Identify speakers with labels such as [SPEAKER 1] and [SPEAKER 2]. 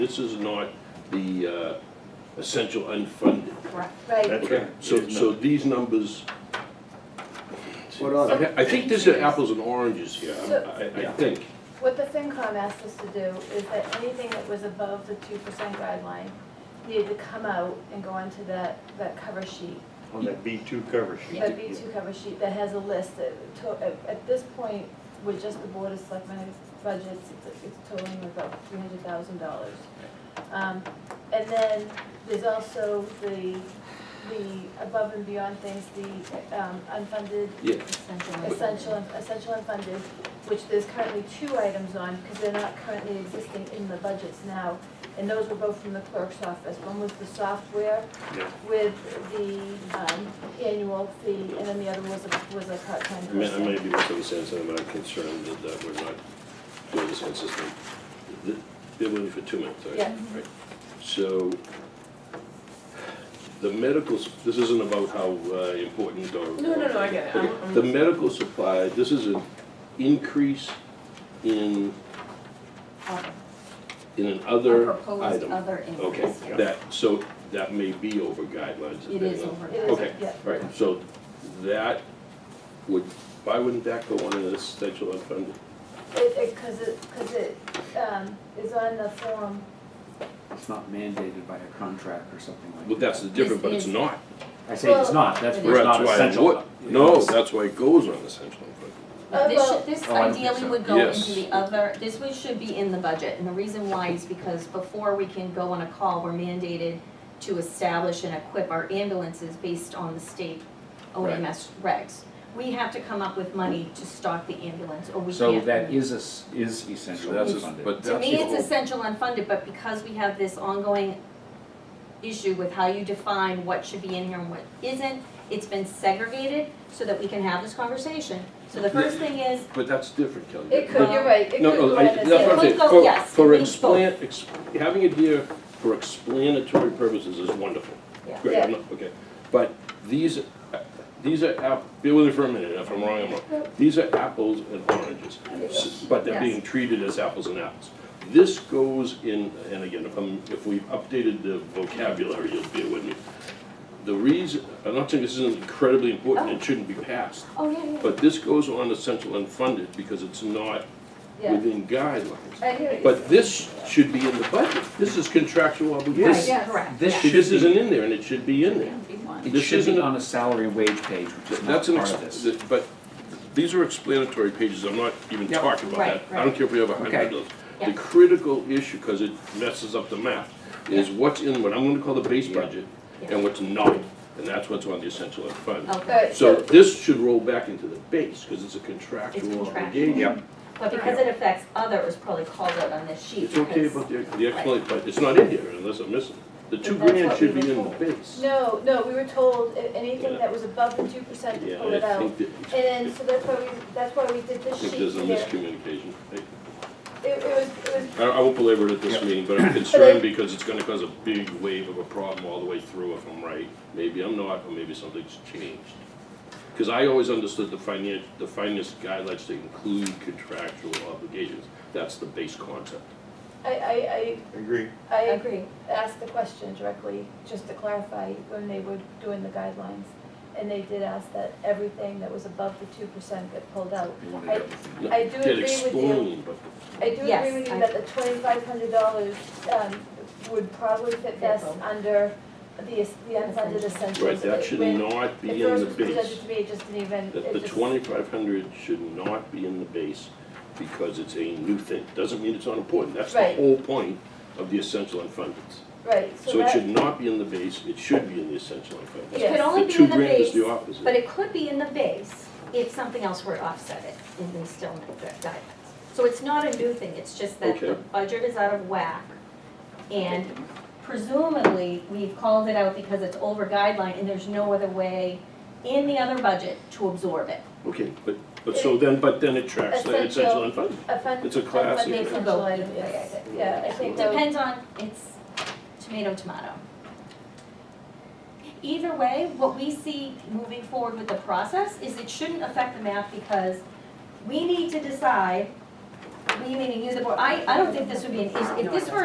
[SPEAKER 1] This is not the uh, essential unfunded.
[SPEAKER 2] Correct.
[SPEAKER 3] That's
[SPEAKER 1] Okay,
[SPEAKER 3] right.
[SPEAKER 1] So,
[SPEAKER 3] There's
[SPEAKER 1] so
[SPEAKER 3] no-
[SPEAKER 1] these numbers,
[SPEAKER 4] What are they?
[SPEAKER 1] I think this is apples and oranges here, I'm- I, I
[SPEAKER 3] Yeah.
[SPEAKER 1] think.
[SPEAKER 2] What the FinCom asked us to do is that anything that was above the two percent guideline needed to come out and go onto that, that cover sheet.
[SPEAKER 3] On that B two cover sheet.
[SPEAKER 2] That B two cover sheet that has a list, that to- at, at this point, with just the Board of Selectmen budgets, it's, it's totaling about three hundred thousand dollars. Um, and then there's also the, the above and beyond things, the, um, unfunded
[SPEAKER 1] Yeah,
[SPEAKER 2] essential, essential and funded, which there's currently two items on, because they're not currently existing in the budgets now. And those were both from the clerk's office. One was the software
[SPEAKER 3] Yeah.
[SPEAKER 2] with the um, annual fee, and then the other was a, was a part-time
[SPEAKER 1] I may, I may
[SPEAKER 2] person.
[SPEAKER 1] be making sense, and I'm concerned that- that we're not doing this consistent. Th- Bear with me for two minutes, all right?
[SPEAKER 2] Yeah.
[SPEAKER 1] Right. So, the medical, s- this isn't about how uh, important or.
[SPEAKER 5] No, no, no, I get it. I'm-
[SPEAKER 1] Okay,
[SPEAKER 5] I'm-
[SPEAKER 1] The medical supply, this is an increase in, in an
[SPEAKER 6] A
[SPEAKER 1] other
[SPEAKER 6] proposed
[SPEAKER 1] item.
[SPEAKER 6] other
[SPEAKER 1] Okay,
[SPEAKER 6] increase, yes.
[SPEAKER 1] that, so that may be over guidelines.
[SPEAKER 6] It is
[SPEAKER 1] depending on-
[SPEAKER 6] over.
[SPEAKER 2] It is,
[SPEAKER 1] Okay,
[SPEAKER 2] yeah.
[SPEAKER 1] right, so that would, why wouldn't that go on in essential unfunded?
[SPEAKER 2] It, it, because it, because it um, is on the form,
[SPEAKER 4] It's not mandated by a contract or something like
[SPEAKER 1] Well,
[SPEAKER 4] that.
[SPEAKER 1] that's the difference, but it's not.
[SPEAKER 4] I say it's not, that's
[SPEAKER 6] Well,
[SPEAKER 4] where it's
[SPEAKER 1] That's
[SPEAKER 4] not
[SPEAKER 1] why it
[SPEAKER 4] essential.
[SPEAKER 1] would- No, that's why it goes on essential unfunded.
[SPEAKER 6] No, This
[SPEAKER 2] Oh,
[SPEAKER 6] should, this
[SPEAKER 4] oh, I don't think
[SPEAKER 6] ideally
[SPEAKER 4] so.
[SPEAKER 6] would go
[SPEAKER 1] Yes.
[SPEAKER 6] into the other, this would, should be in the budget, and the reason why is because before we can go on a call, we're mandated to establish and equip our ambulances based on the state OMS regs. We have to come up with money to stock the ambulance, or we can't.
[SPEAKER 4] So that is, es- is essential
[SPEAKER 1] That's just-
[SPEAKER 4] funded.
[SPEAKER 1] but
[SPEAKER 6] To
[SPEAKER 1] that's
[SPEAKER 6] me,
[SPEAKER 1] the
[SPEAKER 6] it's
[SPEAKER 1] whole-
[SPEAKER 6] essential unfunded, but because we have this ongoing issue with how you define what should be in here and what isn't, it's been segregated so that we can have this conversation. So the first thing is,
[SPEAKER 1] But that's different, Kelly.
[SPEAKER 2] It could, you're right, it could
[SPEAKER 1] No,
[SPEAKER 2] go
[SPEAKER 1] no,
[SPEAKER 2] on
[SPEAKER 1] I,
[SPEAKER 2] as
[SPEAKER 1] that's what I'm
[SPEAKER 6] It
[SPEAKER 1] saying,
[SPEAKER 6] could go-
[SPEAKER 1] for,
[SPEAKER 6] yes,
[SPEAKER 1] for
[SPEAKER 6] it means
[SPEAKER 1] explan, ex, having it here for explanatory purposes is wonderful.
[SPEAKER 6] Yeah.
[SPEAKER 1] Great, I'm not- okay, but these, uh, these are, app- bear with me for a minute, if I'm wrong, I'm wrong. These are apples and oranges, s- but they're
[SPEAKER 6] Yes.
[SPEAKER 1] being treated as apples and apples. This goes in, and again, if I'm, if we've updated the vocabulary, you'll bear with me. The reason, I'm not saying this isn't incredibly important, it shouldn't be passed,
[SPEAKER 6] oh, yeah, yeah, yeah.
[SPEAKER 1] but this goes on essential unfunded because it's not
[SPEAKER 2] yeah.
[SPEAKER 1] within guidelines.
[SPEAKER 2] I hear what you're
[SPEAKER 1] But this should be in the budget. This is contractual
[SPEAKER 4] Yes.
[SPEAKER 1] obligation.
[SPEAKER 6] Right, correct.
[SPEAKER 4] This
[SPEAKER 6] yeah.
[SPEAKER 4] should
[SPEAKER 1] This isn't
[SPEAKER 4] be,
[SPEAKER 1] in there and it should be in there.
[SPEAKER 4] it
[SPEAKER 1] this
[SPEAKER 4] should be
[SPEAKER 1] isn't-
[SPEAKER 4] on a salary and wage page, which is not
[SPEAKER 1] That's an,
[SPEAKER 4] part
[SPEAKER 1] ex-
[SPEAKER 4] of this.
[SPEAKER 1] th- but these are explanatory pages. I'm not even
[SPEAKER 4] Yep.
[SPEAKER 1] talking about that.
[SPEAKER 6] Right,
[SPEAKER 1] I don't
[SPEAKER 6] right.
[SPEAKER 1] care if we have a hundred
[SPEAKER 4] Okay.
[SPEAKER 1] of those. The
[SPEAKER 6] Yeah.
[SPEAKER 1] critical issue, because it messes up the math, is what's in what I'm gonna call the base
[SPEAKER 4] Yeah.
[SPEAKER 1] budget
[SPEAKER 6] Yeah. Oh.
[SPEAKER 1] and what's not. And that's what's on the essential fund.
[SPEAKER 6] Okay,
[SPEAKER 2] Alright,
[SPEAKER 1] So this should roll back into the base because it's a
[SPEAKER 6] It's
[SPEAKER 1] contractual
[SPEAKER 6] contractual.
[SPEAKER 1] obligation.
[SPEAKER 4] Yep.
[SPEAKER 6] but because it affects others, probably called out on this sheet.
[SPEAKER 1] It's okay
[SPEAKER 6] because-
[SPEAKER 1] about the, the explanation, but it's not in here unless I'm missing. The two
[SPEAKER 6] But that's
[SPEAKER 1] grand
[SPEAKER 6] what
[SPEAKER 1] should be
[SPEAKER 6] we were
[SPEAKER 1] in the
[SPEAKER 6] told.
[SPEAKER 1] base.
[SPEAKER 2] No, no, we were told a- anything
[SPEAKER 1] Yeah.
[SPEAKER 2] that was above the two percent to
[SPEAKER 1] Yeah,
[SPEAKER 2] pull it
[SPEAKER 1] I
[SPEAKER 2] out.
[SPEAKER 1] think that,
[SPEAKER 2] And then, so that's why we, that's why we did
[SPEAKER 1] I
[SPEAKER 2] this sheet
[SPEAKER 1] think there's a
[SPEAKER 2] here.
[SPEAKER 1] miscommunication.
[SPEAKER 2] It, it was, it was,
[SPEAKER 1] I, I won't belabor it at this
[SPEAKER 4] Yeah.
[SPEAKER 1] meeting, but I'm concerned because it's gonna cause a big wave of a problem all the way through if I'm right. Maybe I'm not, or maybe something's changed. Cause I always understood the finance, the finance guidelines to include contractual obligations. That's the base concept.
[SPEAKER 2] I, I,
[SPEAKER 3] Agree.
[SPEAKER 2] I,
[SPEAKER 6] I
[SPEAKER 2] I
[SPEAKER 6] agree,
[SPEAKER 2] asked the question directly, just to clarify, when they were doing the guidelines. And they did ask that everything that was above the two percent get pulled out.
[SPEAKER 4] They wanted
[SPEAKER 2] I-
[SPEAKER 4] everything.
[SPEAKER 1] No,
[SPEAKER 2] I do
[SPEAKER 1] Get
[SPEAKER 2] agree with you.
[SPEAKER 1] explained, but
[SPEAKER 2] I do
[SPEAKER 6] Yes,
[SPEAKER 2] agree with you
[SPEAKER 6] I-
[SPEAKER 2] that the twenty-five hundred dollars, um, would probably fit best
[SPEAKER 6] both.
[SPEAKER 2] under the, es- the unfunded essentials.
[SPEAKER 1] Right, that should
[SPEAKER 2] When-
[SPEAKER 1] not
[SPEAKER 2] At
[SPEAKER 1] be in
[SPEAKER 2] first
[SPEAKER 1] the
[SPEAKER 2] it was presented
[SPEAKER 1] base.
[SPEAKER 2] to me, it just didn't even,
[SPEAKER 1] That the
[SPEAKER 2] it just,
[SPEAKER 1] twenty-five hundred should not be in the base because it's a new thing. Doesn't mean it's not important. That's the
[SPEAKER 2] Right.
[SPEAKER 1] whole point of the essential unfunded.
[SPEAKER 2] right, so
[SPEAKER 1] So it should
[SPEAKER 2] that,
[SPEAKER 1] not be in the base, it should be in the essential
[SPEAKER 6] it
[SPEAKER 1] unfunded.
[SPEAKER 2] Yes.
[SPEAKER 6] could only
[SPEAKER 1] The
[SPEAKER 6] be
[SPEAKER 1] two
[SPEAKER 6] in the
[SPEAKER 1] grand is
[SPEAKER 6] base,
[SPEAKER 1] the opposite.
[SPEAKER 6] but it could be in the base if something else were to offset it, and we still make the guidelines. So it's not a new thing, it's just that the
[SPEAKER 1] Okay.
[SPEAKER 6] budget is out of whack, and presumably, we've called it out because it's over guideline, and there's no other way in the other budget to absorb it.
[SPEAKER 1] Okay, but, but so then, but then it tracks the essential
[SPEAKER 2] Essential.
[SPEAKER 1] unfunded.
[SPEAKER 2] a fund,
[SPEAKER 1] It's a class
[SPEAKER 2] unfunded
[SPEAKER 1] issue.
[SPEAKER 2] essential item, yes, yeah, I think that would,
[SPEAKER 6] Depends on, it's tomato, tomato. Either way, what we see moving forward with the process is it shouldn't affect the math because we need to decide, we meaning you, the board, I, I don't think this would be an issue. If this were